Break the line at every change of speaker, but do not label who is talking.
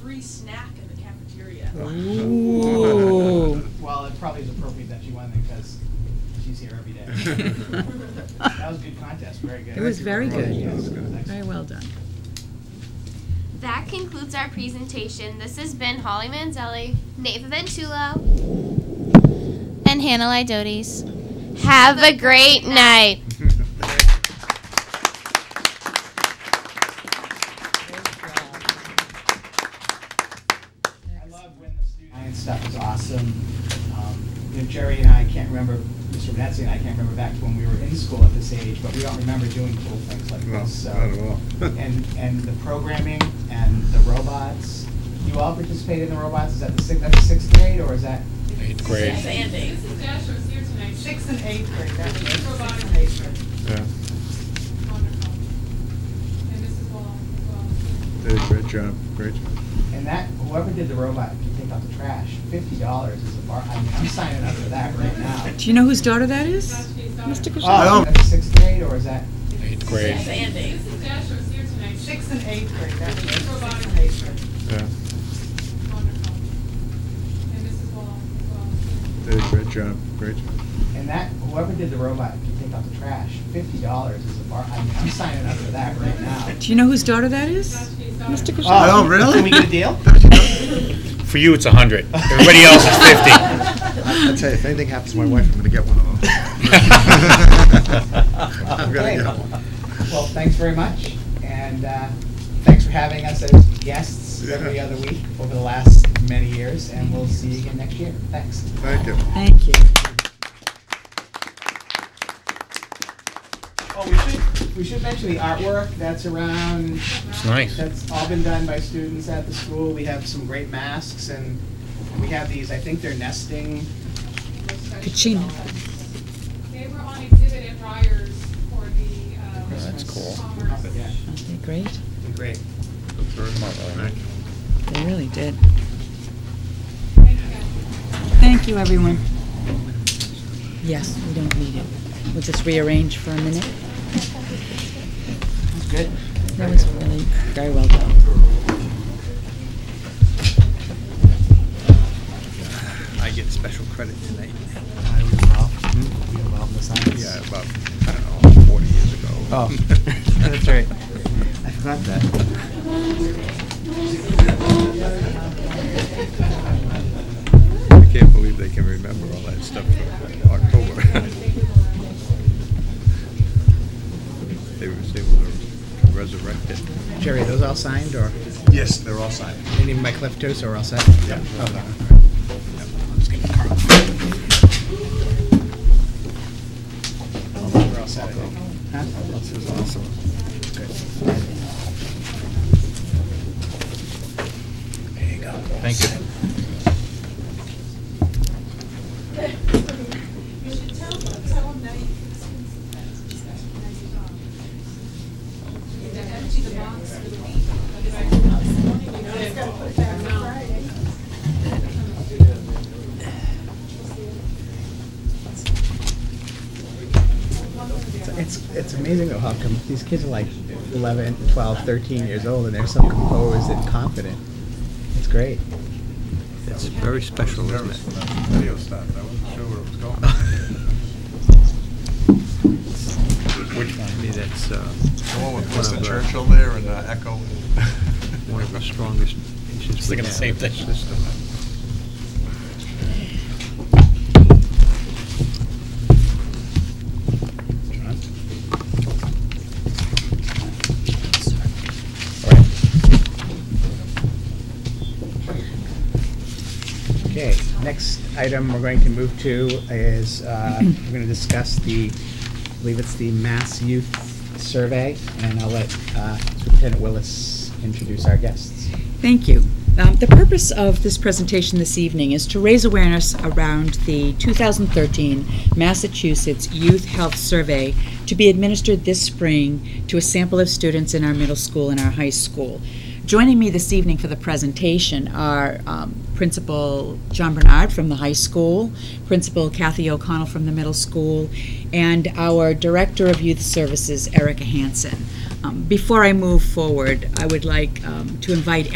free snack in the cafeteria.
Ooh.
Well, it probably is appropriate that she won then, because she's here every day. That was a good contest, very good.
It was very good.
That was good.
Excellent.
Very well done.
That concludes our presentation. This has been Holly Manzelli, Neva Ventulo, and Hannah Lydotes. Have a great night.
I love when the student science stuff is awesome. Um, You know, Jerry and I can't remember, Mr. Venezia and I can't remember back to when we were in school at this age, but we don't remember doing cool things like
No,
this, so.
not at all.
And, and the programming and the robots, you all participated in the robots, is that the sixth, that's the sixth grade, or is that?
Eighth grade.
Six and eight.
Mrs. Dasher is here tonight. She's
Sixth and eighth grade, that's
a robotic
it.
teacher.
Yeah,
Wonderful. And Mrs. Wall as well.
did a great job, great job.
And that, whoever did the robot, if you take out the trash, fifty dollars is a bar, I mean, I'm signing up for that right now.
Do you know whose daughter that
That's
is?
she's daughter.
Mr.
Oh,
Kushner?
is that the sixth grade, or is that?
Eighth
Six
grade.
and eight.
Mrs. Dasher is here tonight. She's
Sixth and eighth grade, that's it.
a robotic
Sixth and eighth
teacher.
Yeah,
Wonderful. And Mrs. Wall as well.
did a great job, great job.
And that, whoever did the robot, if you take out the trash, fifty dollars is a bar, I mean, I'm signing up for that right now.
Do you know whose daughter that
That's
is?
she's daughter.
Mr. Kushner?
Oh, really?
Can we get a deal?
For you, it's 100. Everybody else is 50.
I'll tell you, if anything happens to my wife, I'm gonna get one of them. I'm gonna
Okay.
get one.
Well, thanks very much, and uh, thanks for having us as guests every
Yeah.
other week over the last many years, and we'll see you again next year. Thanks.
Thank you.
Thank you.
Oh, we should, we should mention the artwork that's around,
It's nice.
that's all been done by students at the school. We have some great masks, and we have these, I think they're nesting.
Kachina.
They were on exhibit at Ryers for the, uh,
Oh, That's cool.
Commerce.
Oh, Yeah,
Aren't they great?
they're great.
Thank you.
They really did.
Thank you guys.
Thank you, everyone. Yes, we don't need it. We'll just rearrange for a minute.
Good.
That was really very well done.
I get special credit tonight.
I was involved, you involved in the science?
Yeah, about, I don't know, 40 years ago.
Oh, that's right. I forgot that.
I can't believe they can remember all that stuff from October. They were able to resurrect it.
Jerry, are those all signed, or
Yes, they're all signed.
any of my cleft toes are all set?
Yeah.
We're all set, I think. Huh?
This is awesome.
There you go.
Thank you.
You should tell them, tell them that you can. Empty the box with
It's- It's, it's amazing though how come, these kids are like 11, 12, 13 years old, and they're so composed and confident. It's great.
It's very special, isn't it? Video stopped, I wasn't sure where it was going. Which one? that's, uh. The one with Winston Churchill there and uh, Echo. One of the strongest pieces.
Thinking the same thing.
Okay, next item we're going to move to is, uh, we're going to discuss the, I believe it's the Mass Youth Survey, and I'll let uh, Superintendent Willis introduce our guests.
Thank you. Um, The purpose of this presentation this evening is to raise awareness around the 2013 Massachusetts Youth Health Survey to be administered this spring to a sample of students in our middle school and our high school. Joining me this evening for the presentation are um, Principal John Bernard from the high school, Principal Kathy O'Connell from the middle school, and our Director of Youth Services, Erica Hansen. Um, Before I move forward, I would like um, to invite